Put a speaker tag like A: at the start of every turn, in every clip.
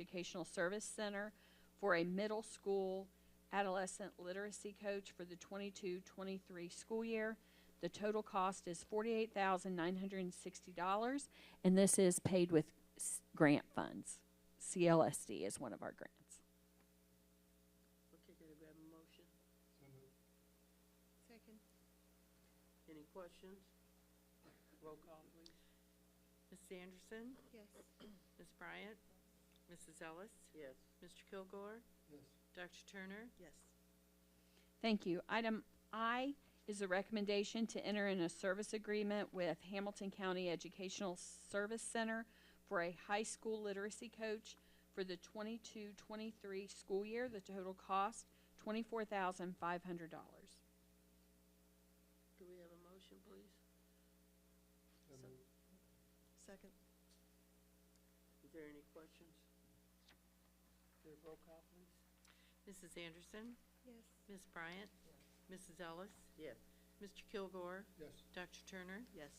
A: Educational Service Center for a middle school adolescent literacy coach for the 22-23 school year. The total cost is forty-eight thousand nine hundred and sixty dollars, and this is paid with s- grant funds. CLSD is one of our grants.
B: Okay, can I grab a motion?
C: Second.
B: Any questions? Roll call, please.
C: Ms. Anderson? Yes. Ms. Bryant? Mrs. Ellis?
B: Yes.
C: Mr. Kilgore?
D: Yes.
C: Dr. Turner?
B: Yes.
A: Thank you. Item I is a recommendation to enter in a service agreement with Hamilton County Educational Service Center for a high school literacy coach for the 22-23 school year. The total cost, twenty-four thousand five hundred dollars.
B: Do we have a motion, please?
D: So
B: So-
D: moved.
B: Second. Is there any questions? Your roll call, please.
C: Mrs. Anderson?
E: Yes,
C: Ms. Bryant? Mrs. Ellis?
B: Yes.
C: Mr. Kilgore?
D: Yes.
C: Dr. Turner?
B: Yes.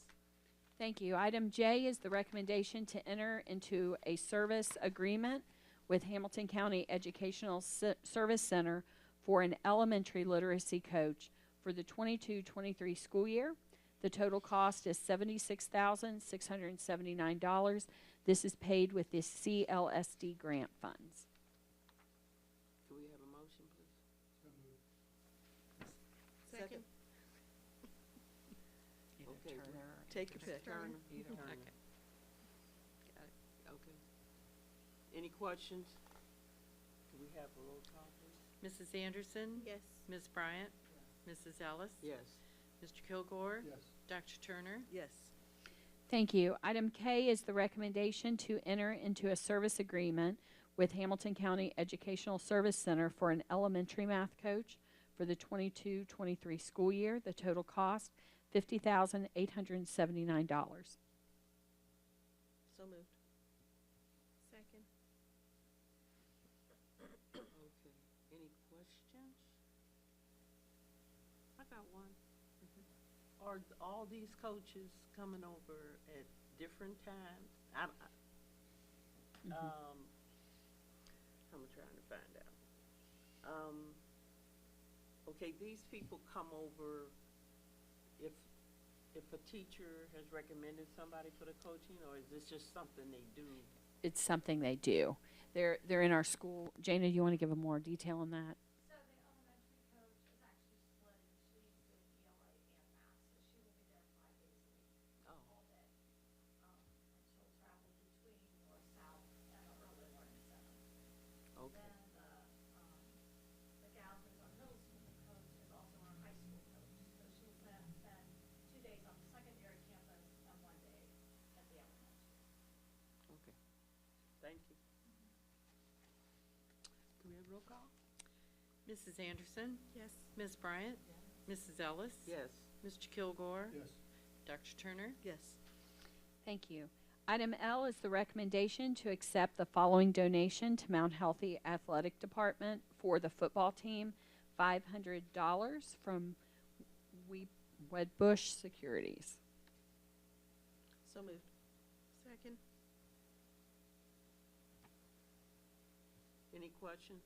A: Thank you. Item J is the recommendation to enter into a service agreement with Hamilton County Educational Se- Service Center for an elementary literacy coach for the 22-23 school year. The total cost is seventy-six thousand, six hundred and seventy-nine dollars. This is paid with the CLSD grant funds.
B: Do we have a motion, please?
D: So moved.
C: Second.
B: Okay, we- Take your pick.
E: Turner.
B: Either Turner.
C: Okay. Got it.
B: Okay. Any questions? Do we have a roll call, please?
C: Mrs. Anderson?
E: yes,
C: Ms. Bryant? Mrs. Ellis?
B: Yes.
C: Mr. Kilgore?
D: Yes.
C: Dr. Turner?
B: Yes.
A: Thank you. Item K is the recommendation to enter into a service agreement with Hamilton County Educational Service Center for an elementary math coach for the 22-23 school year. The total cost, fifty thousand eight hundred and seventy-nine dollars.
B: So moved.
E: second,
B: Okay. Any questions?
F: I got one.
B: Mm-hmm. Are th- all these coaches coming over at different times? I, I, um, I'm trying to find out. Um, okay, these people come over if, if a teacher has recommended somebody for the coaching, or is this just something they do?
A: It's something they do. They're, they're in our school. Jana, do you want to give a more detail on that?
G: So the elementary coach is actually split, she needs to do ELA and math, so she will be there five days a week,
B: Oh,
G: all day. Um, and
B: okay,
G: she'll travel between north, south, and the early morning seven. Then the, um, the gal who's our middle school coach is also our high school coach, so she'll spend, spend two days on the secondary campus and one day at the elementary.
B: okay. Thank you. Do we have roll call?
C: Mrs. Anderson?
E: yes,
C: Ms. Bryant? Mrs. Ellis?
B: Yes.
C: Mr. Kilgore?
D: Yes.
C: Dr. Turner?
B: Yes.
A: Thank you. Item L is the recommendation to accept the following donation to Mount Healthy Athletic Department for the football team, five hundred dollars from We, Wedbush Securities.
B: So moved.
E: second,
B: Any questions?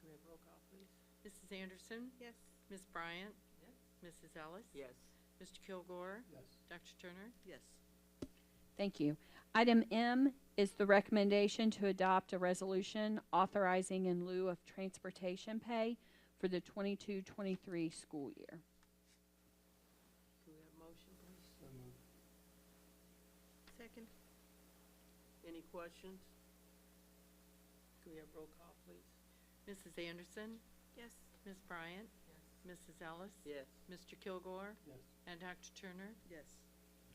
B: Can we have roll call, please?
C: Mrs. Anderson?
E: yes,
C: Ms. Bryant?
B: Yes.
C: Mrs. Ellis?
B: Yes.
C: Mr. Kilgore?
D: Yes.
C: Dr. Turner?
B: Yes.
A: Thank you. Item M is the recommendation to adopt a resolution authorizing in lieu of transportation pay for the 22-23 school year.
B: Can we have a motion, please?
D: So moved.
E: second,
B: Any questions? Can we have roll call, please?
C: Mrs. Anderson?
E: yes,
C: Ms. Bryant? Mrs. Ellis?
B: Yes.
C: Mr. Kilgore?
D: Yes.
C: And Dr. Turner?
B: Yes.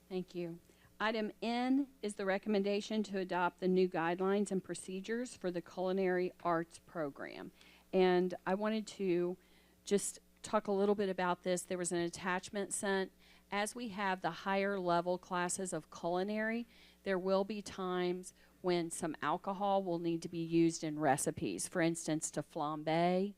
A: Thank you. Item N is the recommendation to adopt the new guidelines and procedures for the culinary arts program. And I wanted to just talk a little bit about this. There was an attachment sent. As we have the higher level classes of culinary, there will be times when some alcohol will need to be used in recipes, for instance, to flambe.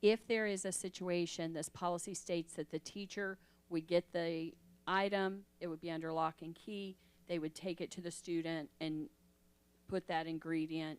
A: If there is a situation, this policy states that the teacher would get the item, it would be under lock and key, they would take it to the student and put that ingredient